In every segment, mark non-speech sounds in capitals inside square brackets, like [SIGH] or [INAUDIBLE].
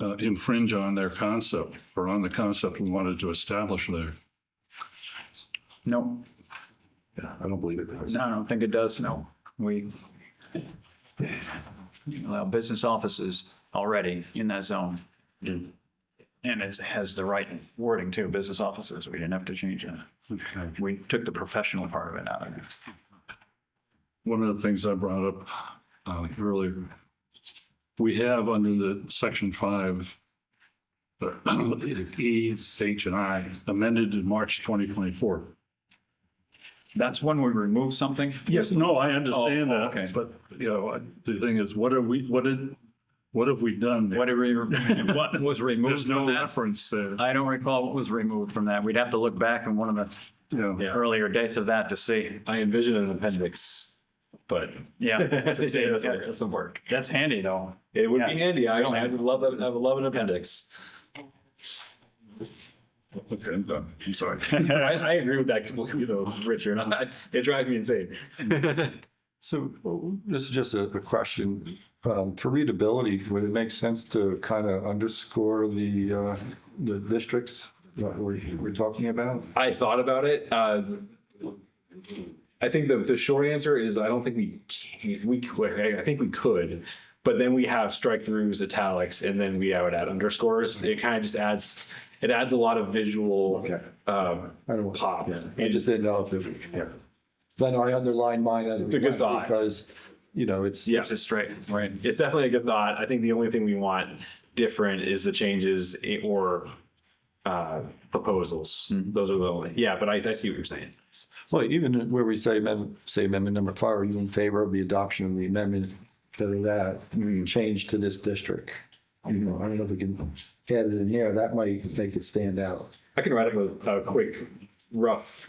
uh, infringe on their concept or on the concept we wanted to establish there. No, Yeah, I don't believe it does. I don't think it does, no. We allow business offices already in that zone. And it has the right wording too, business offices. We didn't have to change it. Okay. We took the professional part of it out of it. one of the things I brought up uh, earlier, we have under the section five, the [CLEARS THROAT] E, H, and I amended in March 2024. That's when we remove something? Yes, no, I understand Oh, okay. that, but, you know, I- the thing is, what are we, what did, what have we done there? What did we, what was removed There's from no that? reference there. I don't recall what was removed from that. We'd have to look back in one of Yeah. the earlier dates of that to see. I envision an [LAUGHS] appendix, but Yeah. to see. that's some work. That's handy though. It would Yeah. be handy. I don't. I would love. that- I would love an appendix. Okay, I'm done. I'm [LAUGHS] sorry. I, [LAUGHS] I agree with that completely, though, Richard. [LAUGHS] I, it drives me insane. So uh, this is just a, a question. Um, for readability, would it make sense to kind of underscore the, uh, the districts that we're, we're talking about? I thought about it. Uh, I think the, the short answer is I don't think we can, we could. I- I think we could, but then we have strike throughs, italics, and then we I would add underscores. It kind of just adds it adds a lot of visual Okay. um, I don't- pop. I And just just didn't know if it, yeah. Then I underlined mine as. It's a good thought. Because, you know, it's, yeah, Keeps it straight, right? it's definitely a good thought. I think the only thing we want different is the changes i- or uh, proposals. Mm-hmm. Those are the only. Yeah, but I, I see what you're saying. well, even where we say amendment, say amendment number five, are you in favor of the adoption of the amendment to that change to this district? You know, I don't know if we can add it in here. That might make it stand out. I can write up a, a quick, rough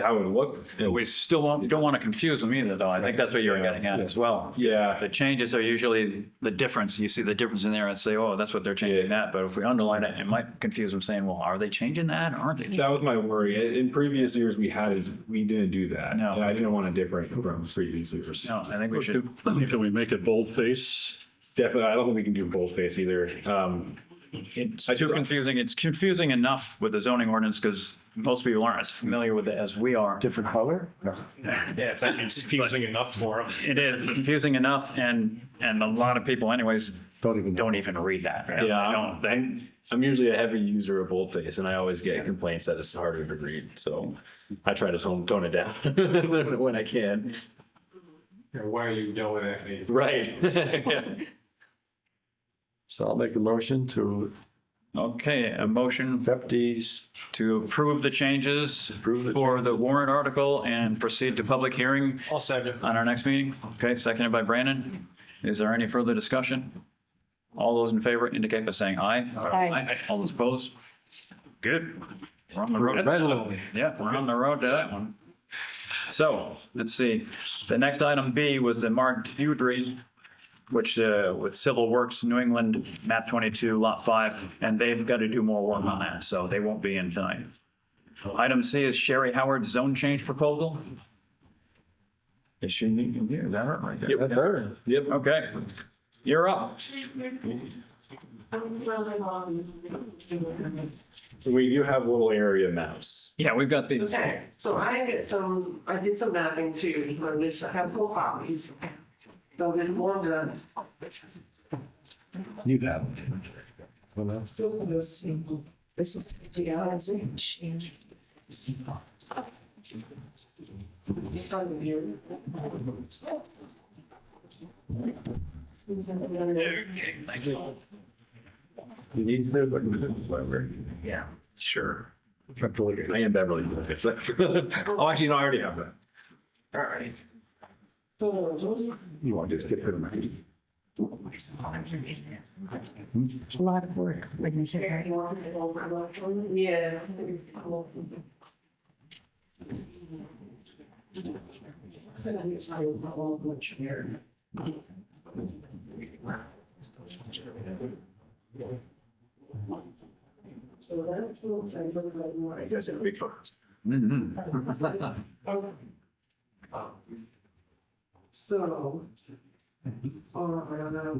how it would look. We still won't- don't want to confuse them either, though. I think that's what you were getting at as well. Yeah. The changes are usually the difference. You see the difference in there and say, oh, that's what they're changing that. But if we underline it, it might confuse them saying, well, are they changing that? Aren't they? That was my worry. In- In previous years, we had, we didn't do that. No. And I didn't want to different from previous years. No, I think we should, Can we make it boldface? Definitely, I don't think we can do boldface either. Um, it's too confusing. It's confusing enough with the zoning ordinance because most people aren't as familiar with it as we are. Different color? No. Yeah, it's [LAUGHS] confusing enough for them. It is confusing enough and, and a lot of people anyways, Don't even know. don't even read that. They Yeah, don't- I'm, they- I'm- I'm usually a heavy user of boldface and I always get complaints that it's harder to read. So I try to tone, tone it down [LAUGHS] when I can. Why are you yelling at me? Right. [LAUGHS] So I'll make a motion to Okay, a motion accept these. to approve the changes for the warrant article and proceed to public hearing I'll second. on our next meeting. Okay, seconded by Brandon. Is there any further discussion? All those in favor indicate by saying aye. Aye. All those opposed? Good. We're on the road. Readily. Yeah, we're on the road to that one. So, let's see. The next item B was the Mark Dewdrey, which uh, with Civil Works, New England, map 22, lot 5, and they've got to do more work on that, so they won't be in tonight. Item C is Sherry Howard's zone change proposal. Is she, is that her right there? That's her. Yep. Okay, you're up. So we do have little area maps. Yeah, we've got these. Okay, so I did some, I did some mapping too, or at least I have four copies. So there's more than. You have. it. Well, that's- This is. You need to look at this library. Yeah. Sure. Have to look at I it. am Beverly. Hills. [LAUGHS] Oh, actually, no, I already have that. All right. So, You want to just get rid of it. a lot of work when you take her. Yeah. I guess it'd be fun. So. All right,